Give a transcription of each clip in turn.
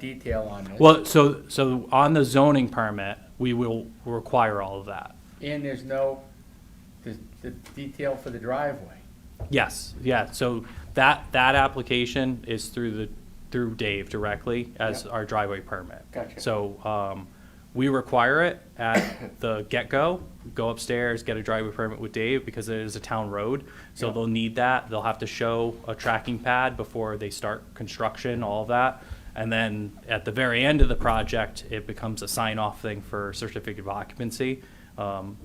detail on this, Well, so, so on the zoning permit, we will require all of that. and there's no, the, the detail for the driveway. Yes, yeah, so that, that application is through the, through Dave directly as Yep. our driveway permit. Gotcha. So, um, we require it at the get-go, go upstairs, get a driveway permit with Dave because it is a town road. So Yep. they'll need that, they'll have to show a tracking pad before they start construction, all of that. And then at the very end of the project, it becomes a sign-off thing for certificate of occupancy. Um,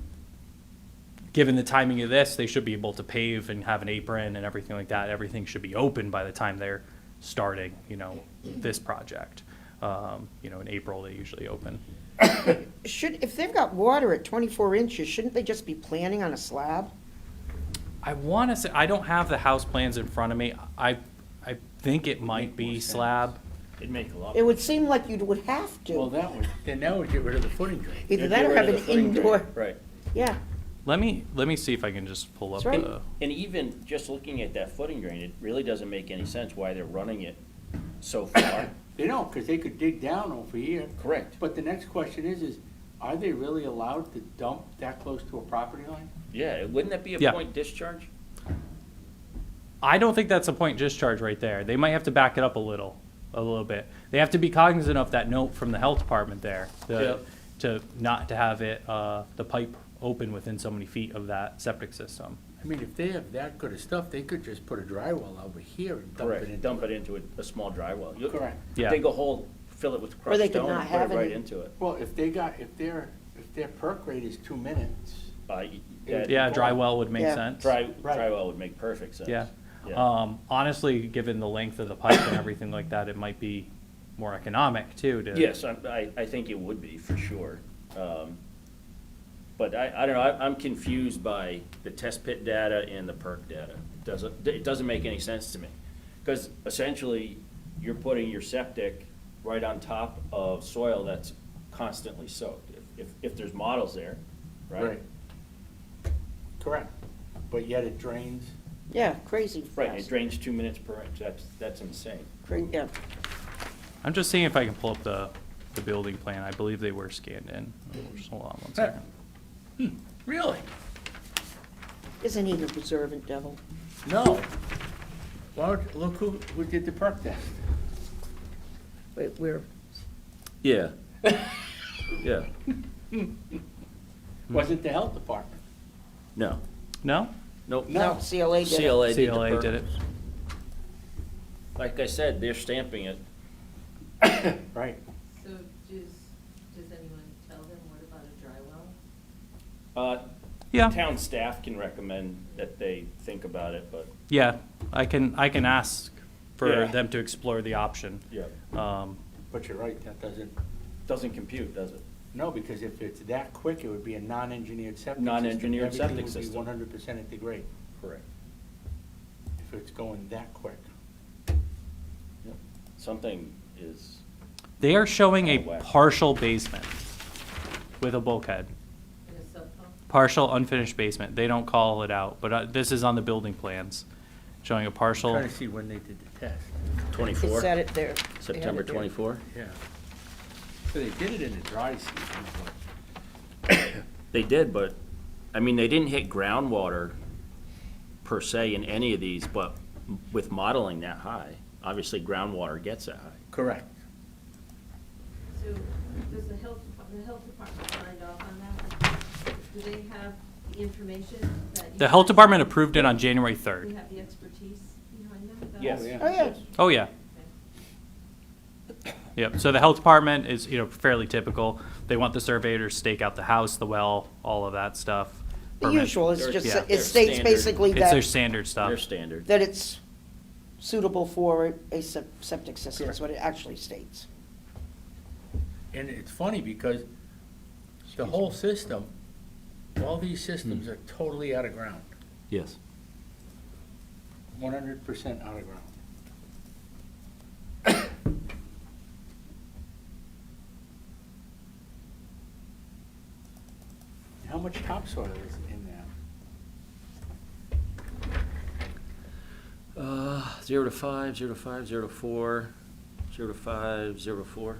given the timing of this, they should be able to pave and have an apron and everything like that. Everything should be open by the time they're starting, you know, this project. Um, you know, in April, they usually open. Should, if they've got water at 24 inches, shouldn't they just be planning on a slab? I want to say, I don't have the house plans in front of me. I, I think it might be slab. It'd make a lot. It would seem like you would have Well, to. that would, then that would get rid of the footing drain. Either Get that or rid have of an the footing drain. indoor, Right. yeah. Let me, let me see if I can just pull up That's right. the, And even just looking at that footing drain, it really doesn't make any sense why they're running it so far. You know, because they could dig down over here. Correct. But the next question is, is are they really allowed to dump that close to a property line? Yeah, wouldn't that be Yeah. a point discharge? I don't think that's a point discharge right there. They might have to back it up a little, a little bit. They have to be cognizant of that note from the health department there, Yeah. the, to not to have it, uh, the pipe open within so many feet of that septic system. I mean, if they have that good of stuff, they could just put a drywall over here and dump it in. Correct, dump it into a, a small dry well. You- Correct. Yeah. Dig a hole, fill it with Or crushed they could stone, not and put have it right any- into it. Well, if they got, if their, if their perk rate is two minutes, Uh, y- Yeah. that Yeah, a dry Well, well would make yeah. sense. Dry, Right. dry well would make perfect sense. Yeah. Yeah. Um, honestly, given the length of the pipe and everything like that, it might be more economic too to. Yes, I, I- I think it would be, for sure. Um, But I, I don't know, I- I'm confused by the test pit data and the perk data. It Doesn't, it doesn't make any sense to me. Because essentially, you're putting your septic right on top of soil that's constantly soaked, if- if, if there's models there, right? Right. Correct. But yet it drains. Yeah, crazy Right, it fast. drains two minutes per inch, that's, that's insane. Cra- yeah. I'm just seeing if I can pull up the, the building plan. I believe they were scanned in. Just hold on one second. Really? Isn't he the preservant devil? No. Well, look who, who did the perk test. Wait, we're, Yeah. Yeah, Wasn't the health department. no, No? nope. no, CLA did it. CLA did the CLA perk. did it. Like I said, they're stamping it. Right. So does, does anyone tell them what about a dry well? Uh, Yeah. Town staff can recommend that they think about it, but, Yeah, I can, I can ask for Yeah. them to explore the option. yeah, Um, But you're right, that doesn't, doesn't compute, does it? no, because if it's that quick, it would be a non-engineered septic system. Non-engineered septic Everything would system. be one hundred percent at the grade, Correct. if it's going that quick. Something is, They are showing Oh, a wow. partial basement with a bulkhead, In a sub pump? partial unfinished basement. They don't call it out, but uh, this is on the building plans, showing a partial. Trying to see when they did the test. It 24, said it there. They had it September there. 24. Yeah. So they did it in the dry season, but They did, but, I mean, they didn't hit groundwater per se in any of these, but with modeling that high, obviously groundwater gets that high. Correct. So does the health, depart- the health department signed off on that? Do they have the information that you? The health department approved it on January We 3rd. have the expertise behind that? Yes. yeah. Oh, yeah. Oh, yeah. Yep, so the health department is, you know, fairly typical. They want the surveyor to stake out the house, the well, all of that stuff. The Permit. usual, it's just, Yeah. it states Standard. basically It's their that, standard Their stuff. standard. that it's suitable for a sep- septic system, is what it actually states. And it's funny because the whole system, all these systems are totally out of ground, Yes. one hundred percent out of ground. How much topsoil is in that? Uh, zero to five, zero to five, zero to four, zero Zero five, zero four.